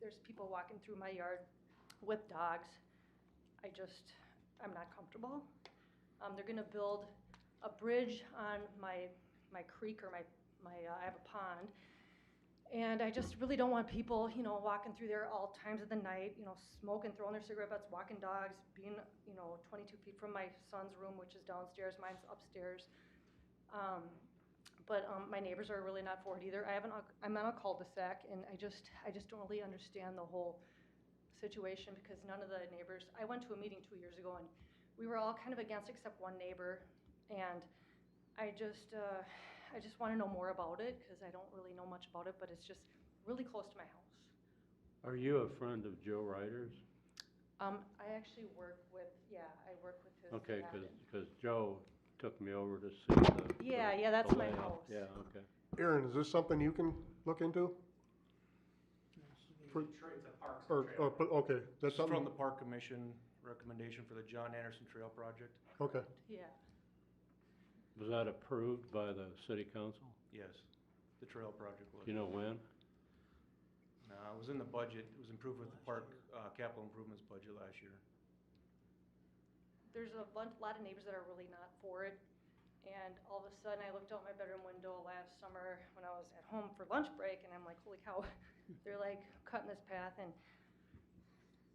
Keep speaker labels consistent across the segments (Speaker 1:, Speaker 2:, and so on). Speaker 1: there's people walking through my yard with dogs. I just, I'm not comfortable. Um, they're gonna build a bridge on my, my creek or my, my, uh, I have a pond. And I just really don't want people, you know, walking through there all times of the night, you know, smoking, throwing their cigarette butts, walking dogs, being, you know, twenty-two feet from my son's room, which is downstairs, mine's upstairs. Um, but, um, my neighbors are really not for it either. I haven't, I'm on a cul-de-sac and I just, I just don't really understand the whole situation because none of the neighbors, I went to a meeting two years ago and we were all kind of against except one neighbor. And I just, uh, I just want to know more about it because I don't really know much about it, but it's just really close to my house.
Speaker 2: Are you a friend of Joe Ryder's?
Speaker 1: Um, I actually work with, yeah, I work with his.
Speaker 2: Okay,
Speaker 1: dad.
Speaker 2: because, Joe took me over to see the.
Speaker 1: Yeah,
Speaker 2: the-
Speaker 1: yeah, that's
Speaker 2: the
Speaker 1: my
Speaker 2: layout.
Speaker 1: house.
Speaker 2: Yeah, okay.
Speaker 3: Aaron, is this something you can look into? For-
Speaker 4: It's a parks
Speaker 3: Or, or, but, okay, that's
Speaker 4: That's
Speaker 3: something,
Speaker 4: from the park commission recommendation for the John Anderson Trail project,
Speaker 3: okay.
Speaker 1: Yeah,
Speaker 2: Was that approved by the city council?
Speaker 4: yes, the trail project was.
Speaker 2: Do you know when?
Speaker 4: No, it was in the budget, it was improved with the park, uh, capital improvements budget last year.
Speaker 1: there's a bun- lot of neighbors that are really not for it. And all of a sudden, I looked out my bedroom window last summer when I was at home for lunch break and I'm like, holy cow, they're like cutting this path and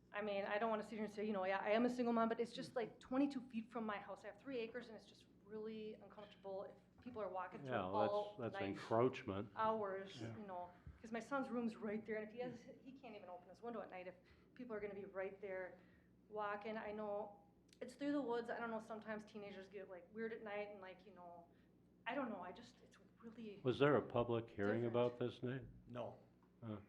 Speaker 1: I mean, I don't want to sit here and say, you know, yeah, I am a single mom, but it's just like twenty-two feet from my house. I have three acres and it's just really uncomfortable if people are walking through
Speaker 2: Yeah,
Speaker 1: all
Speaker 2: that's, that's
Speaker 1: night
Speaker 2: encroachment.
Speaker 1: hours,
Speaker 2: Yeah.
Speaker 1: you know, because my son's room's right there, and if he has, he can't even open his window at night if people are gonna be right there walking. I know, it's through the woods, I don't know, sometimes teenagers get like weird at night and like, you know, I don't know, I just, it's really,
Speaker 2: Was there a public hearing
Speaker 1: Different.
Speaker 2: about this, Nate?
Speaker 4: No.
Speaker 2: Huh.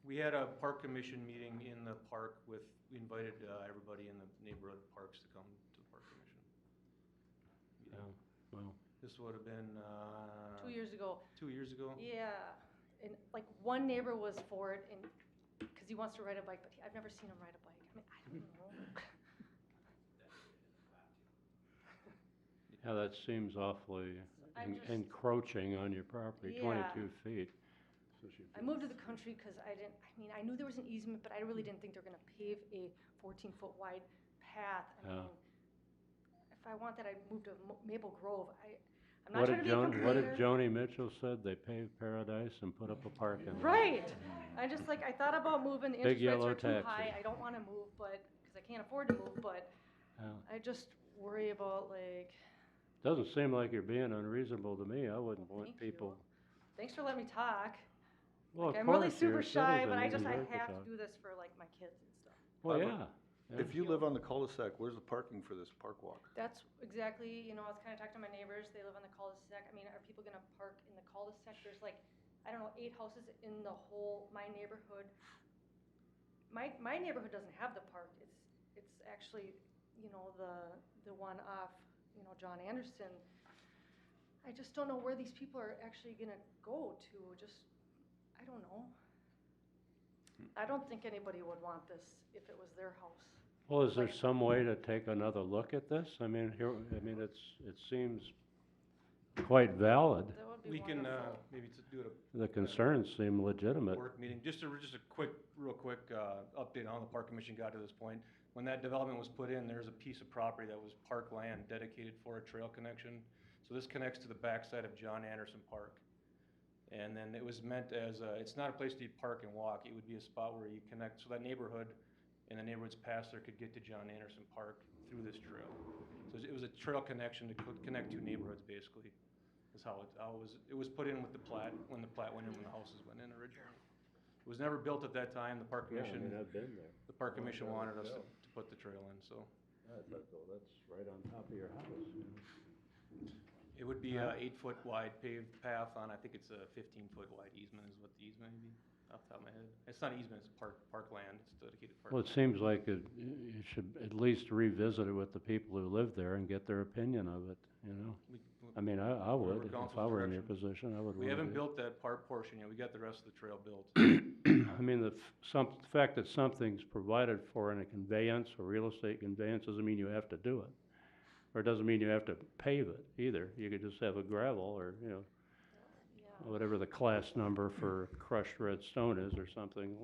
Speaker 4: We had a park commission meeting in the park with, we invited, uh, everybody in the neighborhood parks to come to the park commission.
Speaker 2: Yeah,
Speaker 3: Oh.
Speaker 2: well,
Speaker 4: This would have been, uh.
Speaker 1: two years ago,
Speaker 4: Two years ago?
Speaker 1: yeah. And like, one neighbor was for it, and, because he wants to ride a bike, but he- I've never seen him ride a bike, I mean, I don't know.
Speaker 2: yeah, that seems awfully
Speaker 1: I'm
Speaker 2: en-
Speaker 1: just-
Speaker 2: encroaching on your property,
Speaker 1: Yeah.
Speaker 2: twenty-two feet. So she-
Speaker 1: I moved to the country because I didn't, I mean, I knew there was an easement, but I really didn't think they were gonna pave a fourteen-foot wide path. I
Speaker 2: Yeah.
Speaker 1: mean, if I want that, I'd move to Mo- Maple Grove. I, I'm not
Speaker 2: What
Speaker 1: trying to
Speaker 2: if
Speaker 1: be a
Speaker 2: Joni,
Speaker 1: complainer.
Speaker 2: what if Joni Mitchell said? They paved paradise and put up a parking lot.
Speaker 1: Right. I just like, I thought about moving, the interest rates
Speaker 2: Big yellow
Speaker 1: are too high.
Speaker 2: taxi.
Speaker 1: I don't wanna move, but, because I can't afford to move, but
Speaker 2: Yeah.
Speaker 1: I just worry about like,
Speaker 2: Doesn't seem like you're being unreasonable to me. I wouldn't
Speaker 1: Well,
Speaker 2: want
Speaker 1: thank you.
Speaker 2: people.
Speaker 1: thanks for letting me talk.
Speaker 2: Well,
Speaker 1: Like,
Speaker 2: of
Speaker 1: I'm really
Speaker 2: course, you're
Speaker 1: super
Speaker 2: a
Speaker 1: shy, but
Speaker 2: citizen.
Speaker 1: I
Speaker 2: You
Speaker 1: just, I
Speaker 2: deserve to
Speaker 1: have to
Speaker 2: talk.
Speaker 1: do this for like my kids and stuff.
Speaker 2: Well,
Speaker 5: Barbara,
Speaker 2: yeah. yeah.
Speaker 5: If you live on the cul-de-sac, where's the parking for this park walk?
Speaker 1: That's exactly, you know, I was kind of talking to my neighbors, they live on the cul-de-sac, I mean, are people gonna park in the cul-de-sac? There's like, I don't know, eight houses in the whole, my neighborhood. My, my neighborhood doesn't have the park, it's, it's actually, you know, the, the one off, you know, John Anderson. I just don't know where these people are actually gonna go to, just, I don't know.
Speaker 4: Hmm.
Speaker 1: I don't think anybody would want this if it was their house.
Speaker 2: Well, is there some way to take another look at this? I mean, here, I mean, it's, it seems quite valid.
Speaker 1: That would be
Speaker 4: We
Speaker 1: wonderful.
Speaker 4: can, uh, maybe to do it a
Speaker 2: The concerns seem legitimate.
Speaker 4: Work meeting, just a, just a quick, real quick, uh, update on how the park commission got to this point. When that development was put in, there's a piece of property that was parkland dedicated for a trail connection. So this connects to the backside of John Anderson Park. And then it was meant as a, it's not a place to park and walk, it would be a spot where you connect, so that neighborhood and the neighborhoods past there could get to John Anderson Park through this trail. So it was a trail connection to co- connect two neighborhoods basically, is how it, how it was, it was put in with the plat, when the plat went in, when the houses went in originally. It was never built at that time, the park
Speaker 2: Yeah, I mean,
Speaker 4: commission,
Speaker 2: I've been there.
Speaker 4: the park
Speaker 2: Well,
Speaker 4: commission
Speaker 2: yeah,
Speaker 4: wanted us
Speaker 2: yeah.
Speaker 4: to, to put the trail in, so.
Speaker 2: Yeah, but, well, that's right on top of your house. you know.
Speaker 4: It would be a eight-foot wide paved path on, I think it's a fifteen-foot wide easement is what the easement would be, off the top of my head. It's not easement, it's park, parkland, it's dedicated
Speaker 2: Well, it
Speaker 4: parkland.
Speaker 2: seems like it, you should at least revisit it with the people who live there and get their opinion of it, you know?
Speaker 4: We- we-
Speaker 2: I mean, I, I would, if I
Speaker 4: council's
Speaker 2: were in your position, I would.
Speaker 4: We
Speaker 2: wanna
Speaker 4: haven't
Speaker 2: do-
Speaker 4: built that part portion yet, we got the rest of the trail built.
Speaker 2: I mean, the, f- some, the fact that something's provided for in a conveyance or real estate conveyance doesn't mean you have to do it. Or it doesn't mean you have to pave it either. You could just have a gravel or, you know,
Speaker 1: Yeah.
Speaker 2: whatever the class number for crushed red stone is or something